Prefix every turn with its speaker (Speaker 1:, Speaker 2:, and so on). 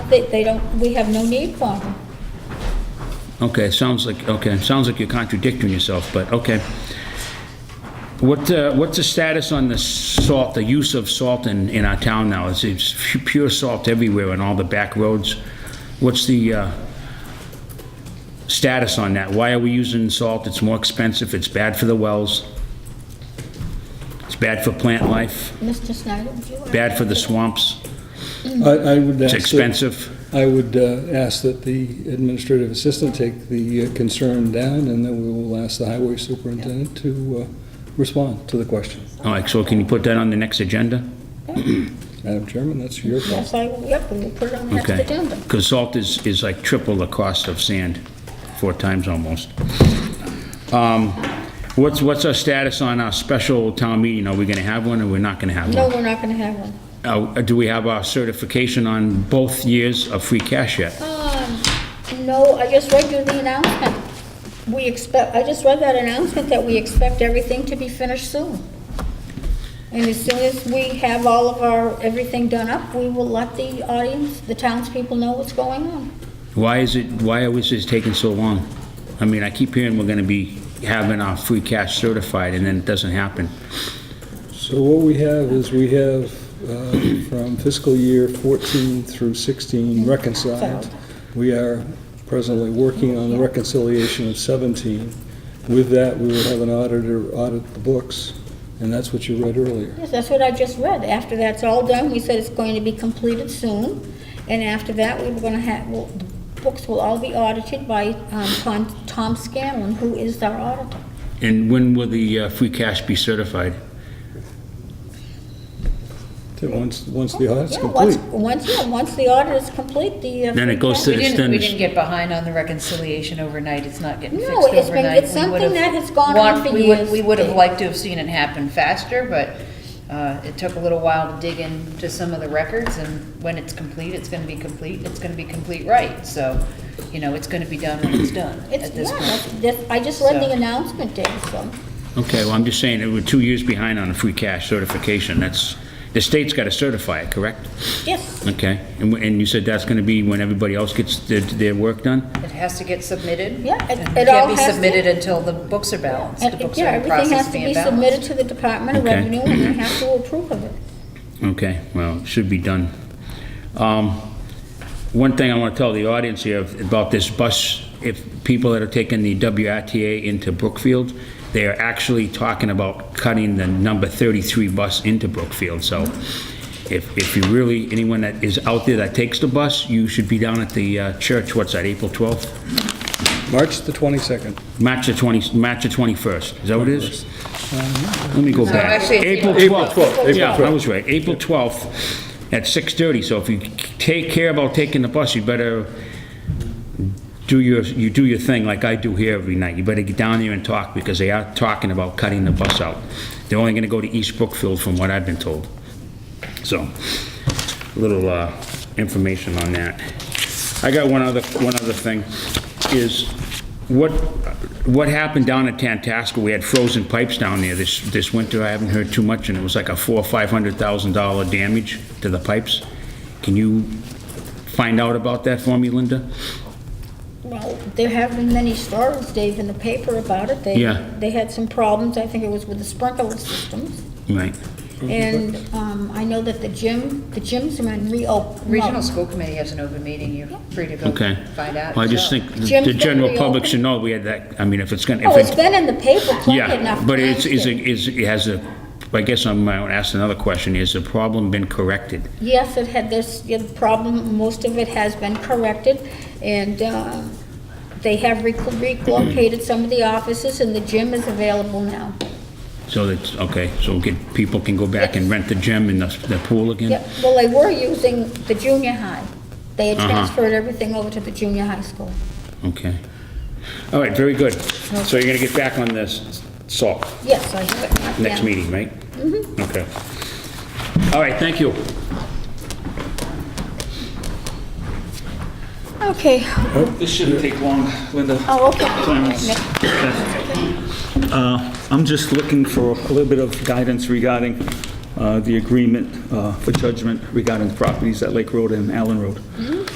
Speaker 1: They, they don't, we have no need for them.
Speaker 2: Okay, sounds like, okay, sounds like you're contradicting yourself, but okay. What, uh, what's the status on the salt, the use of salt in, in our town now? It's, it's pu- pure salt everywhere on all the back roads. What's the, uh, status on that? Why are we using salt? It's more expensive, it's bad for the wells. It's bad for plant life,
Speaker 1: Mr. Snyder, would you?
Speaker 2: bad for the swamps,
Speaker 3: I, I would
Speaker 2: it's
Speaker 3: ask. that-
Speaker 2: expensive.
Speaker 3: I would uh, ask that the administrative assistant take the uh, concern down, and then we will ask the highway superintendent to uh, respond to the question.
Speaker 2: All right, so can you put that on the next agenda?
Speaker 3: Madam Chairman, that's your call.
Speaker 1: Yes, I, yep, we'll put it on the next
Speaker 2: Okay.
Speaker 1: agenda.
Speaker 2: Because salt is, is like triple the cost of sand, four times almost. Um, What's, what's our status on our special town meeting? Are we going to have one or we're not going to have
Speaker 1: No,
Speaker 2: one?
Speaker 1: we're not gonna have one.
Speaker 2: Uh, Do we have our certification on both years of free cash yet?
Speaker 1: Um, no, I just read you the announcement. We expect, I just read that announcement that we expect everything to be finished soon. And as soon as we have all of our, everything done up, we will let the audience, the townspeople know what's going on.
Speaker 2: Why is it, why is this taking so long? I mean, I keep hearing we're going to be having our free cash certified and then it doesn't happen.
Speaker 3: So what we have is we have uh, from fiscal year 14 through 16 reconciled. We are presently working on the reconciliation of 17. With that, we will have an auditor audit the books, and that's what you read earlier.
Speaker 1: Yes, that's what I just read. After that's all done, we said it's going to be completed soon, and after that, we were gonna have, well, the books will all be audited by um, Tom Tom Scanlon, who is our auditor.
Speaker 2: And when will the uh, free cash be certified?
Speaker 3: Then Once, once the audit's
Speaker 1: Yeah, once-
Speaker 3: complete.
Speaker 1: Once, yeah, once the audit is complete, the. uh,
Speaker 2: Then it goes
Speaker 1: free
Speaker 2: to- It's
Speaker 4: We
Speaker 2: then
Speaker 4: didn't, we
Speaker 2: the-
Speaker 4: didn't get behind on the reconciliation overnight, it's not getting
Speaker 1: No,
Speaker 4: fixed
Speaker 1: it's been-
Speaker 4: overnight.
Speaker 1: it's
Speaker 4: We would've
Speaker 1: something that has gone on
Speaker 4: want-
Speaker 1: for
Speaker 4: we would-
Speaker 1: years.
Speaker 4: We would have liked to have seen it happen faster, but uh, it took a little while to dig into some of the records, and when it's complete, it's gonna be complete, it's gonna be complete right, so, you know, it's gonna be done when it's done
Speaker 1: cash. It's,
Speaker 4: at this
Speaker 1: yeah,
Speaker 4: point.
Speaker 1: that's- that's- I just read the
Speaker 4: So-
Speaker 1: announcement, Dave, so,
Speaker 2: Okay, well, I'm just saying, that we're two years behind on the free cash certification. That's, the state's got to certify it, correct?
Speaker 1: yes,
Speaker 2: Okay, and wh- and you said that's going to be when everybody else gets their- their work done?
Speaker 4: It has to get submitted.
Speaker 1: Yeah, it-
Speaker 4: and
Speaker 1: it all
Speaker 4: Can't
Speaker 1: has to-
Speaker 4: be submitted until the books are balanced, the
Speaker 1: And,
Speaker 4: books
Speaker 1: yeah,
Speaker 4: are in the
Speaker 1: everything has
Speaker 4: process
Speaker 1: to
Speaker 4: of
Speaker 1: be
Speaker 4: being balanced.
Speaker 1: submitted to the Department of
Speaker 2: Okay.
Speaker 1: Revenue, and they have to approve of it.
Speaker 2: Okay, well, it should be done. Um, One thing I want to tell the audience here about this bus, if people that are taking the WRTA into Brookfield, they are actually talking about cutting the number 33 bus into Brookfield, so if, if you really, anyone that is out there that takes the bus, you should be down at the uh, church, what's that, April 12th?
Speaker 3: March the 22nd.
Speaker 2: March the 20, March the 21st, is that what it is? Let me go back.
Speaker 4: actually, it's
Speaker 2: April
Speaker 3: April
Speaker 2: 12th.
Speaker 3: 12th, April
Speaker 2: Yeah, I
Speaker 3: 12th.
Speaker 2: was right, April 12th at 6:30, so if you take care about taking the bus, you better do your, you do your thing like I do here every night. You better get down there and talk, because they are talking about cutting the bus out. They're only gonna go to East Brookfield, from what I've been told. So, little uh, information on that. I got one other, one other thing, is what, what happened down at Tantasco? We had frozen pipes down there this, this winter, I haven't heard too much, and it was like a four, or five hundred thousand dollar damage to the pipes. Can you find out about that for me, Linda?
Speaker 1: Well, there have been many stories, Dave, in the paper about it. They-
Speaker 2: Yeah.
Speaker 1: They had some problems, I think it was with the sprinkler systems.
Speaker 2: Right,
Speaker 1: And um, I know that the gym, the gyms are in reopen.
Speaker 4: Oh, Regional School Committee has an open meeting, you're free to go
Speaker 2: okay.
Speaker 4: find out.
Speaker 2: Well, I just
Speaker 4: yourself.
Speaker 2: think the-
Speaker 1: Jim's
Speaker 2: the
Speaker 1: gonna
Speaker 2: general public
Speaker 1: reopen?
Speaker 2: should know we had that, I mean, if it's gonna, if
Speaker 1: Oh, it's
Speaker 2: it's
Speaker 1: been in the paper plenty enough
Speaker 2: Yeah,
Speaker 1: times.
Speaker 2: but it's, is,
Speaker 1: Dave.
Speaker 2: is, it has a, I guess I'm, I would ask another question, has the problem been corrected?
Speaker 1: Yes, it had this, yeah, the problem, most of it has been corrected, and uh, they have rec- relocated some of the offices, and the gym is available now.
Speaker 2: Mm. So that's, okay, so get, people can go back and rent the gym and the, the pool again?
Speaker 1: Yep, well, they were using the junior high. They had
Speaker 2: Uh-huh.
Speaker 1: transferred everything over to the junior high school.
Speaker 2: Okay. All right, very good. So you're gonna get back on this salt
Speaker 1: Yes, I have it.
Speaker 2: next
Speaker 1: Yeah.
Speaker 2: meeting, right? Mm-hmm. Okay. All right, thank you.
Speaker 1: Okay,
Speaker 5: This shouldn't take long, Linda.
Speaker 1: oh, okay.
Speaker 5: Clarence. Uh, I'm just looking for a little bit of guidance regarding uh, the agreement uh, for judgment regarding the properties at Lake Road and Allen Road.